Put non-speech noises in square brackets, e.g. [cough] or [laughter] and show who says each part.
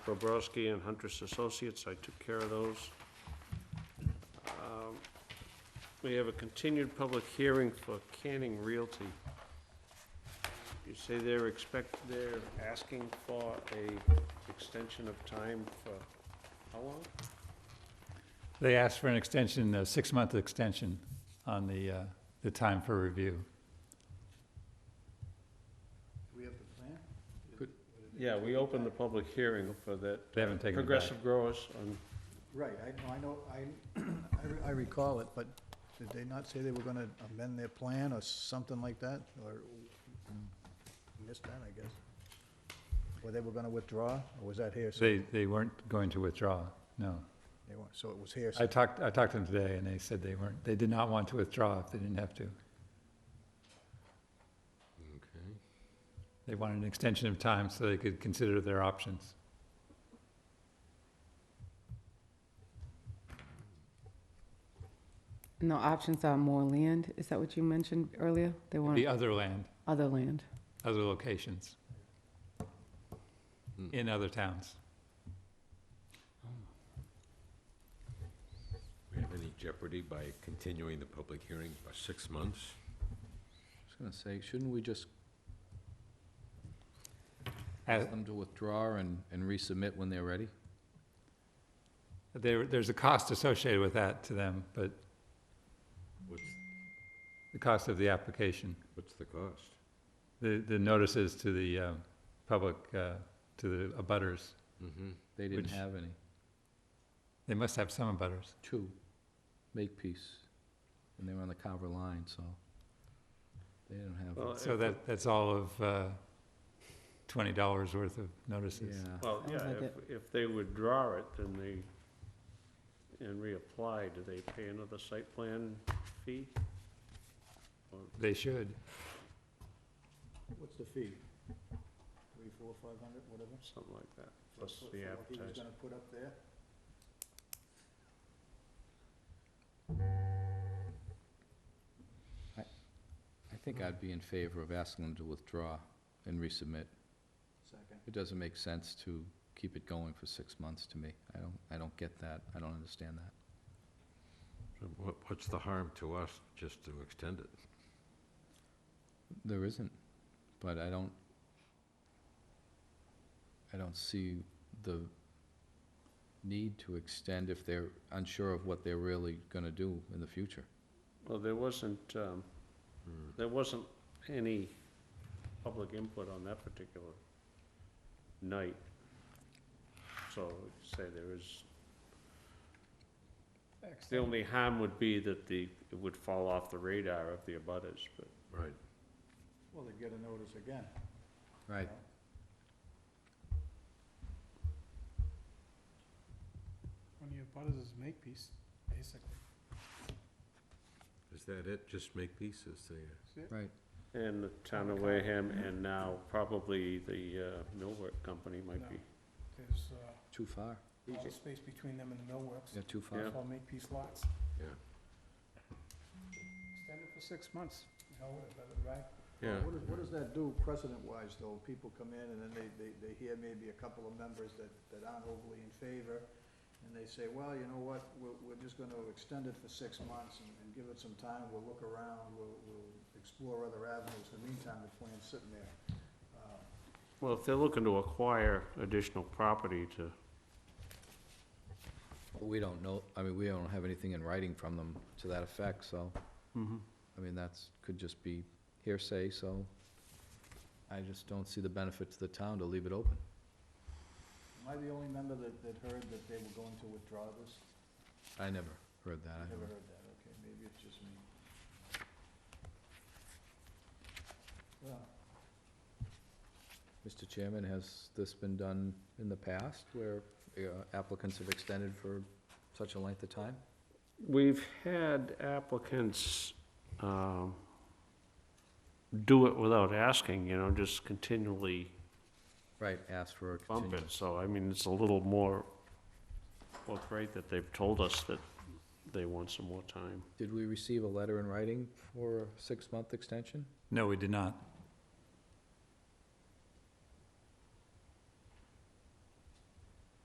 Speaker 1: Bobrowski and Huntress Associates, I took care of those. Um, We have a continued public hearing for Canning Realty. You say they're expect, they're asking for a extension of time for how long?
Speaker 2: They asked for an extension, a six-month extension on the, uh, the time for review.
Speaker 3: we have the plan?
Speaker 1: Yeah, we opened the public hearing for that.
Speaker 2: They haven't taken it back.
Speaker 1: Progressive growers on,
Speaker 3: Right, I, no, I know, I, [clears throat] I re- I recall it, but did they not say they were gonna amend their plan or something like that, or missed that, I guess? Or they were gonna withdraw, or was that here?
Speaker 2: They, they weren't going to withdraw, no.
Speaker 3: They weren't, so it was here.
Speaker 2: I talked, I talked to them today, and they said they weren't, they did not want to withdraw if they didn't have to.
Speaker 4: Okay.
Speaker 2: They wanted an extension of time so they could consider their options.
Speaker 5: No, options are more land, is that what you mentioned earlier? They want
Speaker 2: The other land,
Speaker 5: other land.
Speaker 2: other locations
Speaker 4: Hmm.
Speaker 2: in other towns.
Speaker 4: We have any jeopardy by continuing the public hearing by six months?
Speaker 6: I was gonna say, shouldn't we just
Speaker 2: Uh,
Speaker 6: ask them to withdraw and, and resubmit when they're ready?
Speaker 2: There, there's a cost associated with that to them, but
Speaker 4: What's,
Speaker 2: the cost of the application,
Speaker 4: what's the cost?
Speaker 2: the, the notices to the uh, public, uh, to the abutters,
Speaker 4: Mm-hmm.
Speaker 6: They didn't
Speaker 2: Which-
Speaker 6: have any.
Speaker 2: they must have some abutters.
Speaker 6: Two, make peace. And they were on the Carver line, so they didn't have,
Speaker 1: Well,
Speaker 2: So that, that's all of uh, twenty dollars worth of notices.
Speaker 6: yeah.
Speaker 1: well, yeah,
Speaker 5: Sounds like
Speaker 1: if, if they withdraw it, then they, and reapply, do they pay another site plan fee?
Speaker 2: They should.
Speaker 3: What's the fee? Three, four, five hundred, whatever?
Speaker 1: Something like that,
Speaker 3: for-
Speaker 1: plus
Speaker 3: for-
Speaker 1: the
Speaker 3: for what He was
Speaker 1: advertising.
Speaker 3: gonna put up there?
Speaker 6: I think I'd be in favor of asking them to withdraw and resubmit.
Speaker 3: Second.
Speaker 6: It doesn't make sense to keep it going for six months to me. I don't, I don't get that. I don't understand that.
Speaker 4: What, what's the harm to us just to extend it?
Speaker 6: There isn't, but I don't, I don't see the need to extend if they're unsure of what they're really gonna do in the future.
Speaker 1: Well, there wasn't, um,
Speaker 4: Hmm.
Speaker 1: there wasn't any public input on that particular night. So say there is, the only harm would be that the, it would fall off the radar of the abutters, but
Speaker 4: Right.
Speaker 3: Well, they get a notice again.
Speaker 6: Right.
Speaker 7: One of your butters is Makepeace, basically.
Speaker 4: Is that it? Just make pieces there?
Speaker 6: Right.
Speaker 1: And the town of Wareham, and now probably the uh, millwork company might be.
Speaker 7: There's uh,
Speaker 6: Too far.
Speaker 7: all the space between them and the millworks.
Speaker 6: Yeah, too far.
Speaker 1: Yeah.
Speaker 7: It's all Makepeace lots.
Speaker 4: Yeah.
Speaker 7: Extend it for six months. You know, but, right?
Speaker 4: Yeah.
Speaker 3: What does, what does that do precedent-wise, though? People come in and then they, they, they hear maybe a couple of members that, that aren't overly in favor, and they say, well, you know what, we're, we're just gonna extend it for six months and, and give it some time, we'll look around, we'll, we'll explore other avenues. In the meantime, the plan's sitting there. Uh,
Speaker 1: Well, if they're looking to acquire additional property to,
Speaker 6: But we don't know, I mean, we don't have anything in writing from them to that effect, so, I mean, that's, could just be hearsay, so I just don't see the benefit to the town to leave it open.
Speaker 3: Am I the only member that, that heard that they were going to withdraw this?
Speaker 6: I never heard that. I
Speaker 3: I
Speaker 6: don't-
Speaker 3: Never heard that, okay, maybe it's just me. Well,
Speaker 6: Mr. Chairman, has this been done in the past where uh, applicants have extended for such a length of time?
Speaker 1: we've had applicants um, do it without asking, you know, just continually
Speaker 6: Right, asked for a
Speaker 1: bump it.
Speaker 6: continuance.
Speaker 1: So, I mean, it's a little more, well, great that they've told us that they want some more time.
Speaker 6: Did we receive a letter in writing for a six-month extension?
Speaker 2: No, we did not.